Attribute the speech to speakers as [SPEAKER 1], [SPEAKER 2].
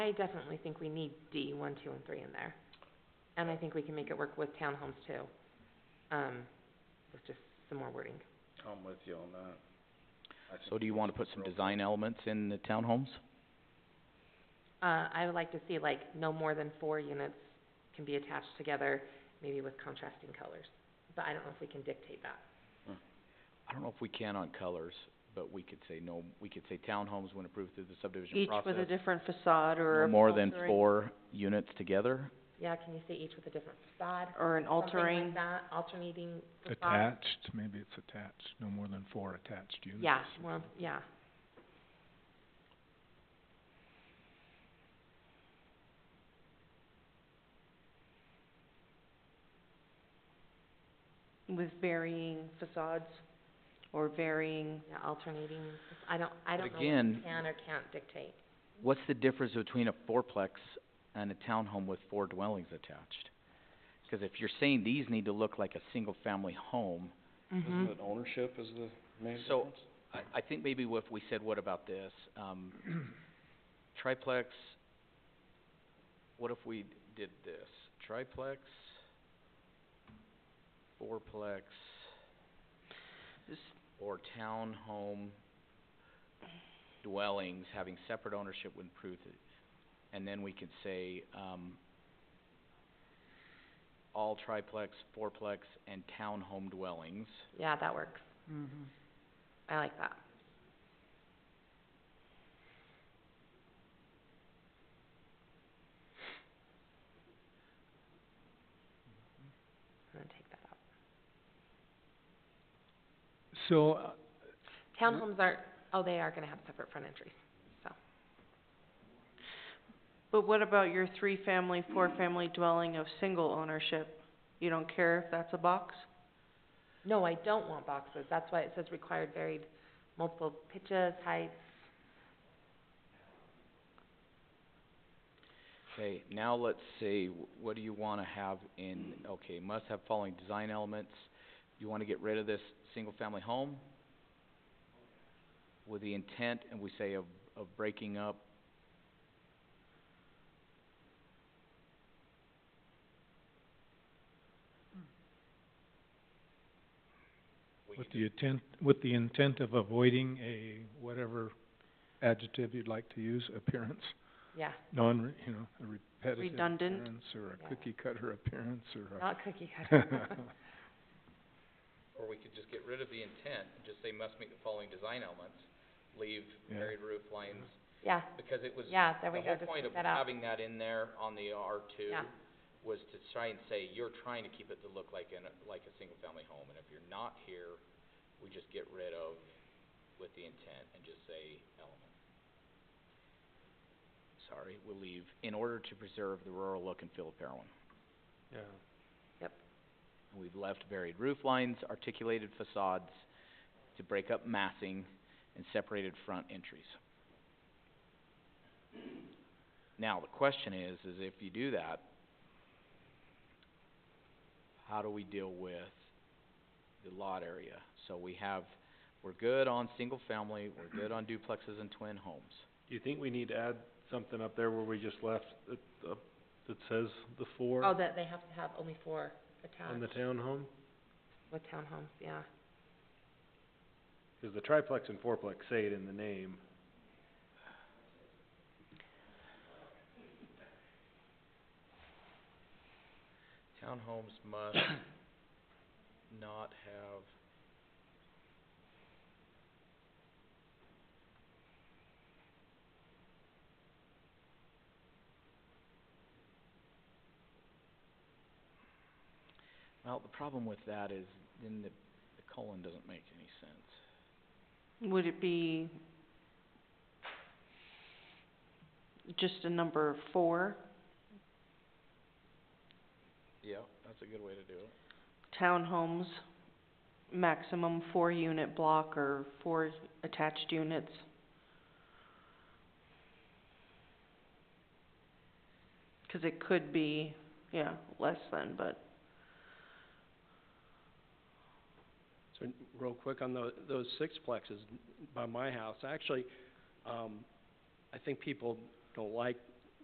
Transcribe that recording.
[SPEAKER 1] I definitely think we need D, one, two, and three in there. And I think we can make it work with townhomes too, um, with just some more wording.
[SPEAKER 2] I'm with you on that. I
[SPEAKER 3] So
[SPEAKER 2] think
[SPEAKER 3] do you wanna put some design elements in the townhomes?
[SPEAKER 1] Uh, I would like to see like no more than four units can be attached together, maybe with contrasting colors. But I don't know if we can dictate that.
[SPEAKER 3] I don't know if we can on colors, but we could say no, we could say townhomes when approved through the subdivision
[SPEAKER 4] Each with a
[SPEAKER 3] process.
[SPEAKER 4] different facade or
[SPEAKER 3] no more than
[SPEAKER 4] altering-
[SPEAKER 3] four units together,
[SPEAKER 1] Yeah, can you say each with a different facade?
[SPEAKER 4] Or an
[SPEAKER 1] Something
[SPEAKER 4] altering.
[SPEAKER 1] like that, alternating facades.
[SPEAKER 5] Attached, maybe it's attached, no more than four attached units.
[SPEAKER 1] Yeah, well, yeah.
[SPEAKER 4] With varying facades or varying,
[SPEAKER 1] Yeah, alternating, I don't, I don't
[SPEAKER 3] But
[SPEAKER 1] know what we
[SPEAKER 3] again-
[SPEAKER 1] can or can't dictate.
[SPEAKER 3] what's the difference between a fourplex and a townhome with four dwellings attached? 'Cause if you're saying these need to look like a single-family home,
[SPEAKER 2] Isn't it ownership is the main difference?
[SPEAKER 3] So- I, I think maybe if we said, what about this, um, triplex, what if we did this, triplex, fourplex, or townhome dwellings having separate ownership when approved, and then we could say, um, all triplex, fourplex, and townhome dwellings.
[SPEAKER 1] Yeah, that works. Mm-hmm. I like that. I'm gonna take that out.
[SPEAKER 5] So, uh,
[SPEAKER 1] Townhomes are, oh, they are gonna have separate front entries.
[SPEAKER 4] but what about your three-family, four-family dwelling of single ownership? You don't care if that's a box?
[SPEAKER 1] No, I don't want boxes, that's why it says required varied multiple pitches, heights.
[SPEAKER 3] Okay, now let's see, wh- what do you wanna have in, okay, must have following design elements. You wanna get rid of this single-family home with the intent, and we say of, of breaking up. We
[SPEAKER 5] with
[SPEAKER 3] could
[SPEAKER 5] the intent, with the intent of avoiding a whatever adjective you'd like to use, appearance,
[SPEAKER 1] Yeah,
[SPEAKER 5] non, you know, a repetitive
[SPEAKER 4] Redundant.
[SPEAKER 5] appearance, or
[SPEAKER 1] Yeah.
[SPEAKER 5] a cookie cutter appearance, or a
[SPEAKER 1] not cookie cutter.
[SPEAKER 3] just- Or we could just get rid of the intent, and just say must meet the following design elements, leave
[SPEAKER 5] Yeah.
[SPEAKER 3] varied roof lines,
[SPEAKER 1] Yeah,
[SPEAKER 3] because it was
[SPEAKER 1] yeah, there we go, just
[SPEAKER 3] The whole point
[SPEAKER 1] take
[SPEAKER 3] of
[SPEAKER 1] that out.
[SPEAKER 3] having that in there on the R two
[SPEAKER 1] Yeah.
[SPEAKER 3] was to try and say, you're trying to keep it to look like an, like a single-family home, and if you're not here, we just get rid of with the intent and just say element. Sorry, we'll leave, in order to preserve the rural look and feel of Parowan. We've left varied roof lines, articulated facades to break up massing, and separated front entries. Now, the question is, is if you do that, how do we deal with the lot area? So we have, we're good on single family, we're good on duplexes and twin homes.
[SPEAKER 6] Do you think we need to add something up there where we just left, that, uh, that says the four
[SPEAKER 1] oh, that they have to have only four
[SPEAKER 6] on the
[SPEAKER 1] attached
[SPEAKER 6] townhome?
[SPEAKER 1] with townhomes, yeah.
[SPEAKER 6] Cause the triplex and fourplex say it in the name.
[SPEAKER 3] Townhomes must not have Well, the problem with that is then the, the colon doesn't make any sense.
[SPEAKER 4] Would it be just a number four,
[SPEAKER 3] Yeah, that's a good way to do it.
[SPEAKER 4] townhomes, maximum four-unit block or four attached units? Cause it could be, yeah, less than, but
[SPEAKER 7] So, n- real quick on tho- those sixplexes by my house, actually, um, I think people don't like